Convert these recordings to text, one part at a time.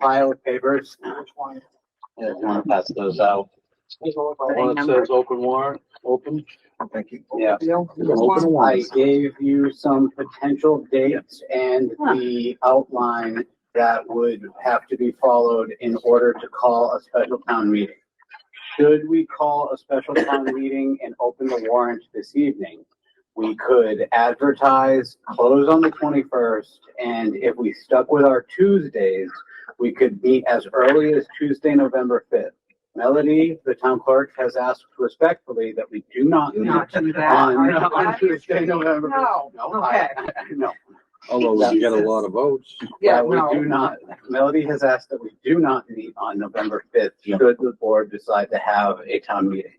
file papers. Yeah, if you wanna pass those out. One that says open warrant, open. Thank you. Yeah. I gave you some potential dates and the outline that would have to be followed in order to call a special town meeting. Should we call a special town meeting and open the warrant this evening? We could advertise, close on the twenty-first, and if we stuck with our Tuesdays, we could meet as early as Tuesday, November fifth. Melody, the town clerk, has asked respectfully that we do not meet Not do that. on, Are you on out? Tuesday, November. No. No, I, no. Although we get a lot of votes. Yeah, That we no. do not, Melody has asked that we do not meet on November fifth, should the board decide to have a town meeting.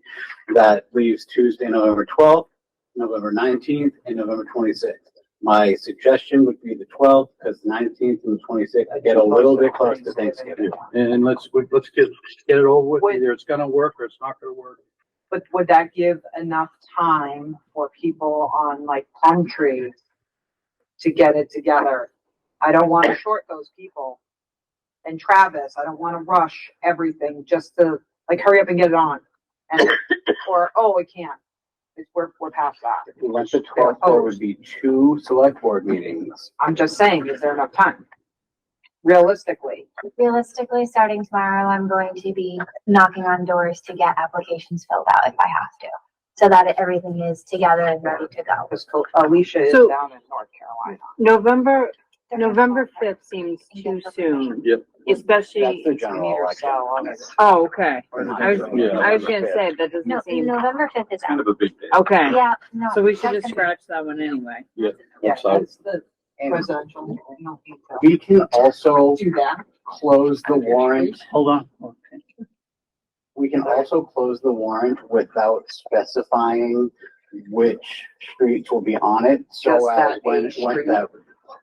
That leaves Tuesday, November twelfth, November nineteenth, and November twenty-sixth. My suggestion would be the twelfth, because nineteenth and twenty-sixth, I get a little bit close to Thanksgiving. And let's, we- let's get, get it over with. Wait. Either it's gonna work or it's not gonna work. But would that give enough time for people on like Plum Tree to get it together? I don't want to short those people. And Travis, I don't want to rush everything just to like hurry up and get it on. And, or, oh, we can't. It's, we're, we're past that. Once the twelfth, there would be two select board meetings. I'm just saying, is there enough time? Realistically, Realistically, starting tomorrow, I'm going to be knocking on doors to get applications filled out if I have to. So that everything is together and ready to go. because Alicia is So- down in North Carolina. November, November fifth seems too soon, Yep. That's especially, the general election. oh, okay. I was, Yeah. I was gonna say, that No, doesn't seem, November fifth is out. a big day. okay, Yeah, no. so we should just that's- scratch that one anyway. Yeah, Looks like- that's the And presidential. I don't think so. we can also Do that. close the warrant, Hold on. we can also close the warrant without specifying which streets will be on it, so Just as that when, each when street. that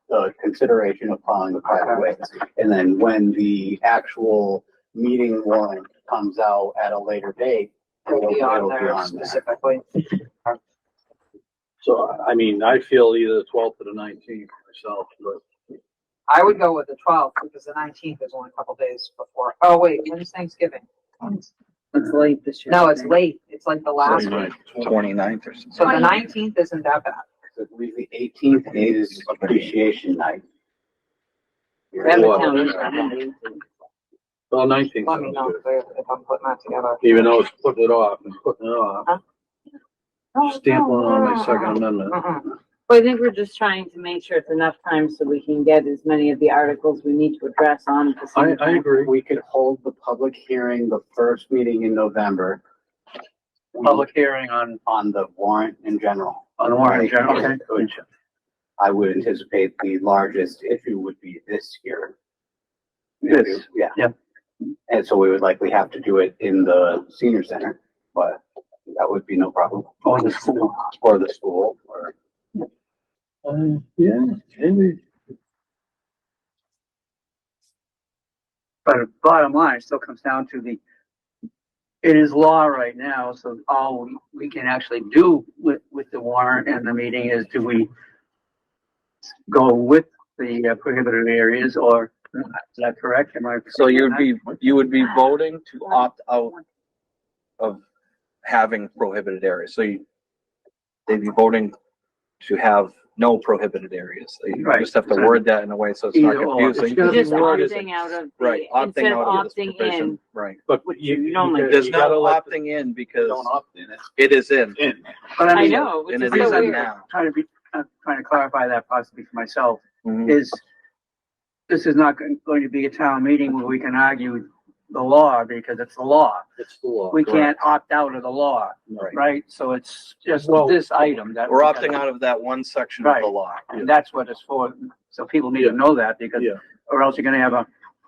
the consideration of following the private ways, and then when the actual meeting warrant comes out at a later date, It'll be on it'll be there on there. specifically. So, I mean, I feel either the twelfth or the nineteenth myself, but I would go with the twelfth because the nineteenth is only a couple days before. Oh, wait, when's Thanksgiving? It's late this year. No, it's late. It's like the last Right. one. Twenty-ninth or So the Twenty. nineteenth isn't that bad. So I believe the eighteenth is appreciation night. We have a Well, town yeah. meeting. well, nineteenth. Let me know if they're- if I'm putting that together. Even though it's putting it off and putting it off, Oh, stamping on my second amendment. Mm-mm. Well, I think we're just trying to make sure it's enough time so we can get as many of the articles we need to address on at the I, same I time. agree. We could hold the public hearing the first meeting in November. Public hearing on, on the warrant in general. on warrant, general. Which I would anticipate the largest issue would be this year. Yes. Yeah. Yeah. And so we would likely have to do it in the senior center, but that would be no problem. Or the school. Or the school, or, Uh, yeah, maybe. But bottom line, it still comes down to the, it is law right now, so all we- we can actually do with, with the warrant and the meeting is do we go with the uh, prohibited areas or, is that correct? Am I? So you'd be, you would be voting to opt out of having prohibited areas. So you, they'd be voting to have no prohibited areas. So You Right. just have to word that in a way so it's not Either or. It's confusing. gonna be Just worded. opting out of the, Right, opting instead of out of this opting provision, in. right. But Which you, you you don't like. gotta- There's you gotta no let the- opting in because don't opt in it. it is in. But I mean, know, which And is it so is in weird. now. Trying to be, uh, trying to clarify that possibly for myself. Mhm. is this is not going going to be a town meeting where we can argue the law because it's the law. It's the law. We correct. can't opt out of the law, Right. right? So it's just Well- this item that. We're opting out of that one section of the law. And that's what it's for. So people need to know that because Yeah. or else you're gonna have a,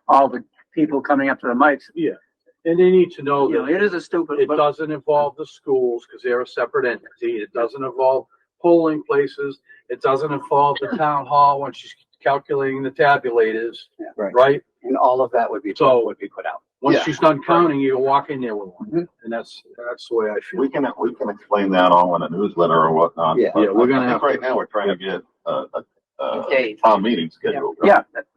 all the people coming up to the mics. And they need to know You know, that it is a stupid, it but doesn't involve the schools because they're a separate entity. It doesn't involve polling places. It doesn't involve the town hall when she's calculating the tabulators, Right. right? and all of that would be, So- would be put out. Once Yeah. she's done counting, you walk in there with one. And that's, that's the way I feel. We can, we can explain that all in a newsletter or whatnot. Yeah. but Yeah, we're gonna I think have to- Right now, we're trying to get a, a, a Date. town meeting scheduled. yeah, that-